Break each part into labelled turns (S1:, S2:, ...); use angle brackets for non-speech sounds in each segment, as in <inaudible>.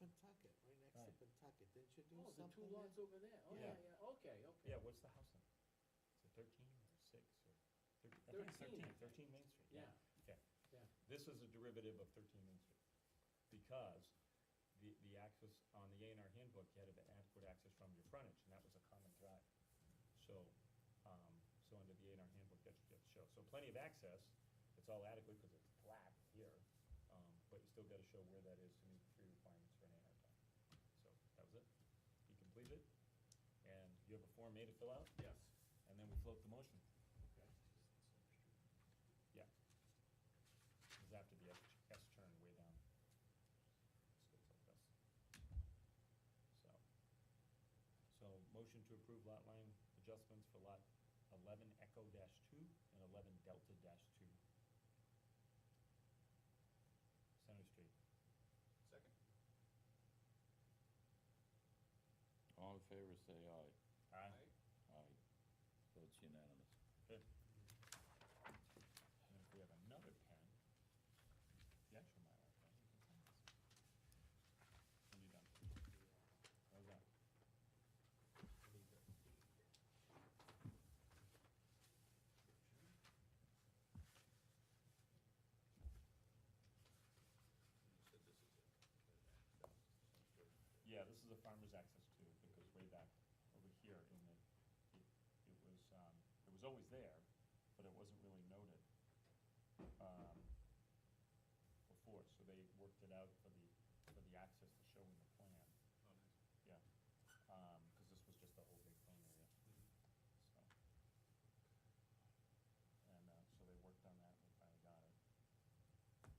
S1: Oh,
S2: Oh, two lots over there, oh, yeah,
S1: Yeah.
S2: yeah, okay, okay.
S1: Yeah, what's the house number? Is it thirteen or six or thirteen? I think it's
S2: 13, I
S1: thirteen,
S2: think.
S1: thirteen Main Street, yeah.
S2: Yeah,
S1: This is a derivative of thirteen Main Street, because the, the access on the A and R handbook, you had to have adequate access from your frontage, and that was a common drive. So, um, so under the A and R handbook, that's what you have to show. So plenty of access, it's all adequate because it's flat here, um, but you still gotta show where that is to meet the three requirements for an A and R plan. So, that was it. You completed it, and you have a form A to fill out,
S2: yes,
S1: and then we float the motion.
S2: okay.
S1: Yeah. It's after the S- S turn way down. Just goes like this. So. So motion to approve lot line adjustments for lot eleven Echo dash two and eleven Delta dash two. Center Street.
S3: Second.
S4: All in favor, say aye.
S1: Aye.
S4: Aye. Votes unanimous.
S1: Good. And if we have another pen, the actual Mylar pen, you can send us. And you're done. How's that?
S3: You said this is it.
S1: Yeah, this is a farmer's access too, it goes way back over here in the, it, it was, um, it was always there, but it wasn't really noted, um, before, so they worked it out for the, for the access to show in the plan,
S3: Oh, nice.
S1: yeah. Um 'cause cause this was just the whole big thing area, so. And, uh, so they worked on that and we finally got it. So, so then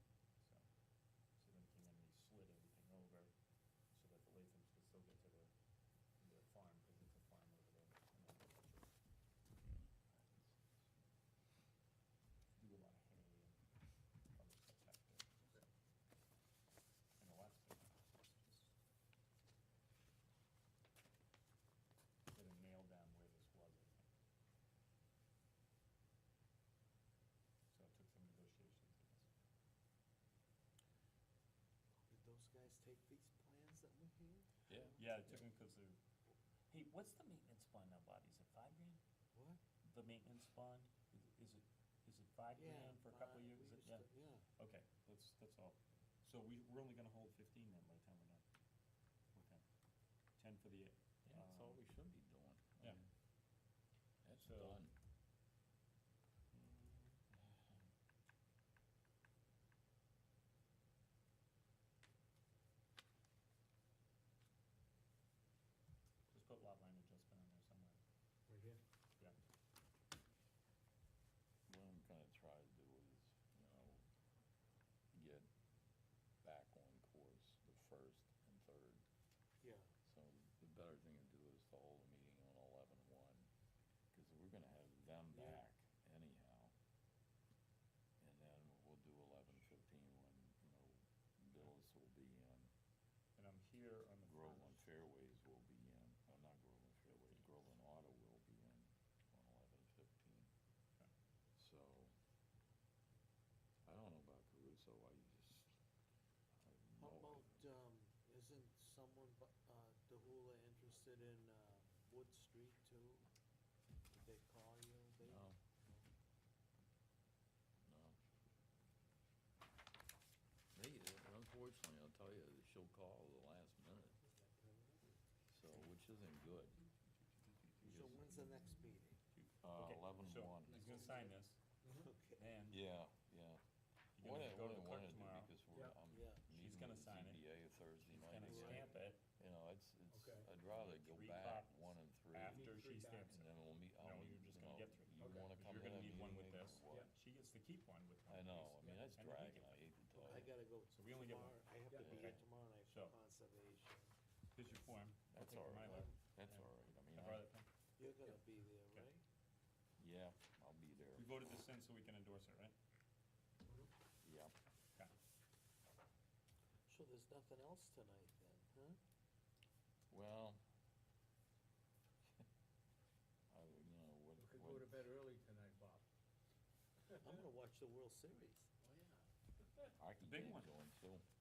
S1: came in and they slid everything over so that the Lathams could still get to their, their farm, because it's a farm over there. and agriculture. Do a lot of hay and other stuff back there. And a lot of stuff. Get a nail down where this was, I think. So it took some negotiations, I guess.
S5: Did those guys take these plans that we had?
S4: Yeah.
S1: Yeah, it took them because they're. Hey, what's the maintenance bond now, Bobby? Is it five grand?
S5: What?
S1: The maintenance bond, Is- is it, is it five
S5: Yeah.
S1: grand for a couple
S5: but
S1: of years?
S5: we used
S1: Is it- Yeah,
S5: to- Yeah,
S1: okay, that's, that's all. So we, we're only gonna hold fifteen then by the time we're done. Okay. Ten for the,
S4: Yeah, that's all
S1: um,
S4: we should be doing. I
S1: yeah.
S4: mean, That's
S1: So-
S4: done.
S1: just put lot line adjustment on there somewhere.
S2: Right here?
S1: Yeah.
S4: What I'm gonna try to do is, you know, get back on course the first and third.
S5: yeah.
S4: So the better thing to do is to hold a meeting on eleven one, because we're gonna have them
S2: Yeah.
S4: back anyhow. And then we'll do eleven fifteen when, you know, Billis will be in,
S1: And I'm here on the
S4: Groveland
S1: first.
S4: Fairways will be in, oh, not Groveland Fairways, Groveland Auto will be in on eleven fifteen.
S1: Okay.
S4: So, I don't know about Caruso, I just, I
S5: How
S4: have no
S5: about,
S4: idea.
S5: um, isn't someone, bu- uh, DeHula interested in, uh, Wood Street too? Did they call you? They-
S4: No. No. They, unfortunately, I'll tell you, she'll call the last minute, so, which isn't good.
S5: So when's the next meeting? <laughs>
S4: Uh,
S1: Okay,
S4: eleven
S1: so
S4: one.
S1: He's gonna sign this,
S5: Okay,
S1: and you're
S4: Yeah, yeah. What
S1: gonna
S4: I,
S1: go to
S4: what I
S1: the
S4: wanna
S1: clerk
S4: do,
S1: tomorrow.
S4: because we're,
S2: Yeah.
S4: I'm
S5: Yeah.
S1: She's
S4: meeting
S1: gonna
S4: with
S1: sign it.
S4: ZBA Thursday
S1: He's
S4: night.
S1: gonna
S4: so,
S1: stamp it
S4: You know, it's, it's,
S2: Okay.
S4: I'd rather go
S1: Three
S4: back
S1: copies
S4: one and three, and
S1: after
S2: three
S1: she stamps it.
S4: then we'll meet, I'll
S1: No,
S4: meet,
S1: you're just
S4: you
S1: gonna
S4: know,
S1: get three.
S4: you
S2: Okay.
S4: wanna
S1: Because
S4: come
S1: You're
S4: in
S1: gonna
S4: and
S1: need one
S4: meet
S1: with
S4: me or
S1: this.
S4: what?
S1: She gets to keep one with one of
S4: I know,
S1: these.
S4: I mean, that's
S1: And I think
S4: dragging,
S1: it-
S4: I hate to
S5: I
S4: tell you,
S5: gotta go
S1: Oh. So we only get one.
S5: tomorrow, I have to
S2: Yeah.
S5: be here
S1: Okay.
S5: tomorrow night for
S1: So-
S5: conservation.
S1: Here's your form. I'll
S4: That's
S1: take the
S4: all right.
S1: Mylar.
S4: that's
S1: Yeah.
S4: all right, I
S1: I
S4: mean,
S1: brought
S4: I,
S1: it. down.
S5: You're gonna be there,
S1: Okay.
S5: right?
S4: yeah, I'll be there,
S1: We voted this in so we can endorse it, right?
S4: yeah.
S1: Okay.
S5: So there's nothing else tonight then, huh?
S4: Well, <laughs> I, would- you know, what,
S2: We could go to
S4: what,
S2: bed early tonight, Bob. <laughs>
S5: I'm gonna watch the World Series. Oh, yeah.
S4: I can
S1: Big
S4: get it
S1: one.
S4: going, so,